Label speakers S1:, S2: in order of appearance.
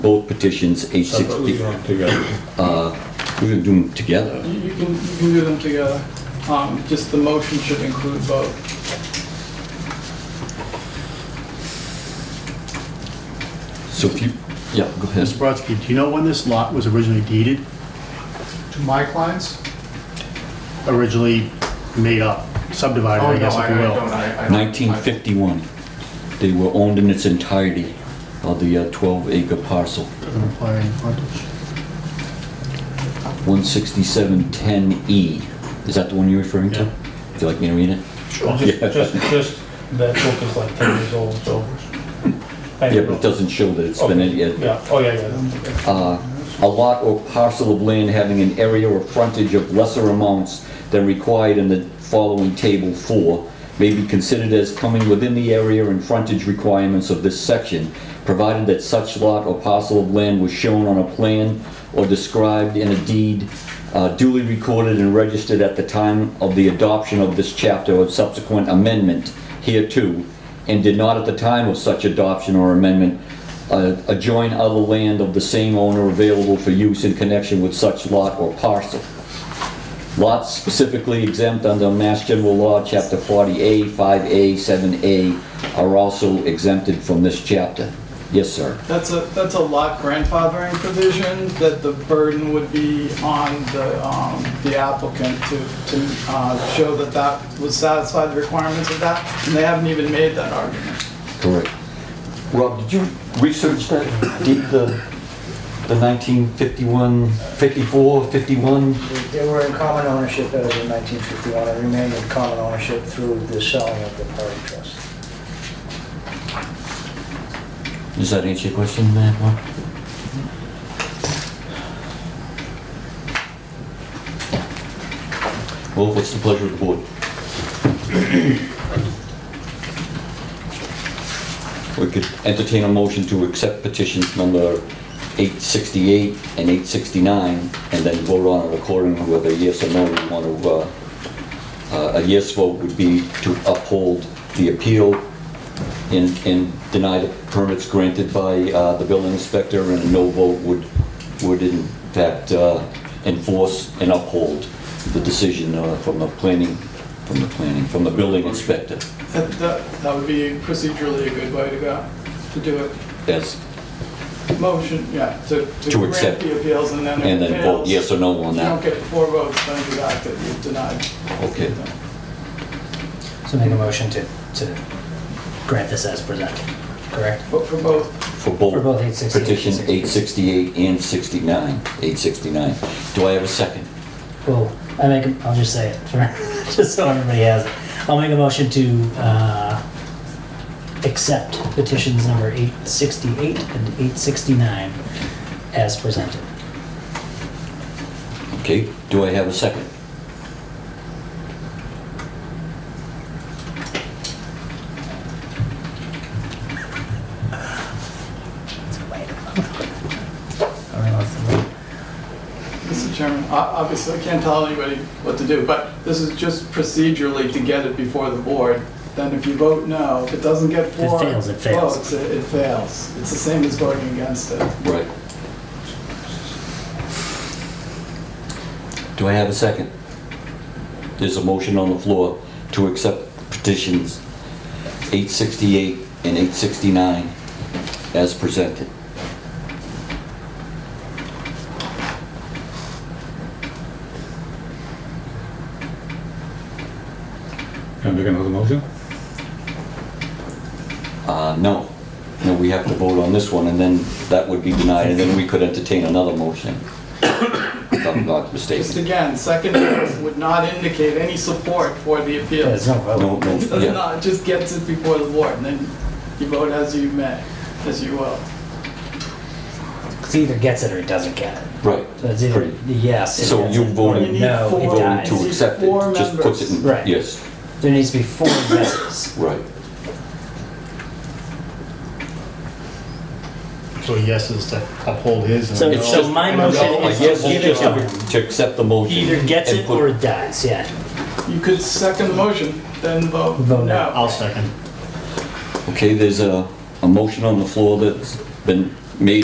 S1: both petitions, H six
S2: Separately
S1: B.
S2: or together?
S1: We're gonna do them together.
S3: You you can, you can do them together. Um, Just the motion should include both.
S1: So if you, yeah, go ahead.
S4: Mr. Brodsky, do you know when this lot was originally deeded,
S5: To my clients?
S4: originally made up, subdivided,
S5: Oh,
S4: I
S5: no,
S4: guess, if you
S5: I I
S4: will?
S5: don't, I- I don't.
S1: 1951. They were owned in its entirety of the 12-acre parcel.
S4: Doesn't apply any frontage.
S1: 16710E. E. Is that the one you're referring to?
S4: Yeah.
S1: Would you like me to read it?
S2: Sure. Just, just, that book is like ten years old, so.
S1: Yeah, but it doesn't show that it's been, yet.
S2: Yeah, oh, yeah, yeah.
S1: uh, a lot or parcel of land having an area or frontage of lesser amounts than required in the following table four may be considered as coming within the area and frontage requirements of this section, provided that such lot or parcel of land was shown on a plan or described in a deed uh, duly recorded and registered at the time of the adoption of this chapter or subsequent amendment hereto, and did not at the time of such adoption or amendment uh, adjoin other land of the same owner available for use in connection with such lot or parcel. Lots specifically exempt under Mass General Law, Chapter 40A, 5A, 7A are also exempted from this chapter. Yes, sir.
S3: That's a, that's a lot grandfathering provision that the burden would be on the, um, the applicant to, to uh, show that that would satisfy the requirements of that, and they haven't even made that argument.
S1: Correct. Rob, did you research that, did the, the 1951, 54, 51?
S6: They were in common ownership as of 1951 and remained in common ownership through the selling of the party trust.
S1: Does that answer your question, Matt? Mark? Well, what's the pleasure of the board? We could entertain a motion to accept petitions number 868 and 869, and then vote on it accordingly whether yes or no we want to, uh, uh, a yes vote would be to uphold the appeal and, and deny the permits granted by uh, the building inspector, and a no vote would, would in fact uh, enforce and uphold the decision uh, from the planning, from the planning, from the building inspector,
S3: That, that that would be procedurally a good way to go, to do it.
S1: as,
S3: Motion, yeah, to,
S1: To
S3: to grant
S1: accept.
S3: the appeals, and then if it
S1: and then vote
S3: fails,
S1: yes or no on
S3: You don't
S1: that.
S3: get four votes, then you back that you've denied.
S1: Okay,
S7: So make a motion to, to grant this as presented, correct?
S3: But for both,
S1: for
S7: For
S1: both
S7: both 868
S1: petition 868 and 69, 869. Do I have a second?
S7: Well, I make, a- I'll just say it, for just so everybody has it. I'll make a motion to, uh, accept petitions number 868 and 869 as presented.
S1: Okay, do I have a second?
S7: All right, let's vote.
S3: Mr. Chairman, o- obviously, I can't tell anybody what to do, but this is just procedurally to get it before the board. Then if you vote no, if it doesn't get four
S7: fails, it fails.
S3: votes, it it fails. It's the same as voting against it.
S1: Right. Do I have a second? There's a motion on the floor to accept petitions 868 and 869 as presented.
S2: Can I make another motion?
S1: Uh, No, no, we have to vote on this one, and then that would be denied, and then we could entertain another motion, if I'm not
S3: Just
S1: mistaken.
S3: again, second vote would not indicate any support for the
S7: Yeah,
S3: appeals.
S7: There's no vote.
S1: No, no,
S3: It does
S1: yeah,
S3: not, it just gets it before the board, and then you vote as you may, as you will.
S7: It either gets it or it doesn't get it.
S1: right.
S7: So it's either
S1: Pretty-
S7: yes. it
S1: So
S7: gets
S1: you
S7: it, or
S1: voted-
S3: You need
S7: No, it
S3: four.
S1: Voting
S7: dies.
S1: to accept it,
S3: Four
S1: just puts it in,
S7: members. Right.
S1: yes,
S7: There needs to be four yeses.
S1: right.
S4: So yes is to uphold his and
S7: So-
S4: no-
S1: It's just-
S7: my
S4: and no
S7: motion
S1: I
S7: is
S1: guess
S7: to
S1: it's
S7: give it
S1: just
S7: to him.
S1: to accept the motion.
S7: He either gets
S1: and
S7: it
S1: put-
S7: or it dies, yeah.
S3: You could second the motion, then vote
S7: Vote no.
S3: no.
S4: I'll second.
S1: Okay, there's a, a motion on the floor that's been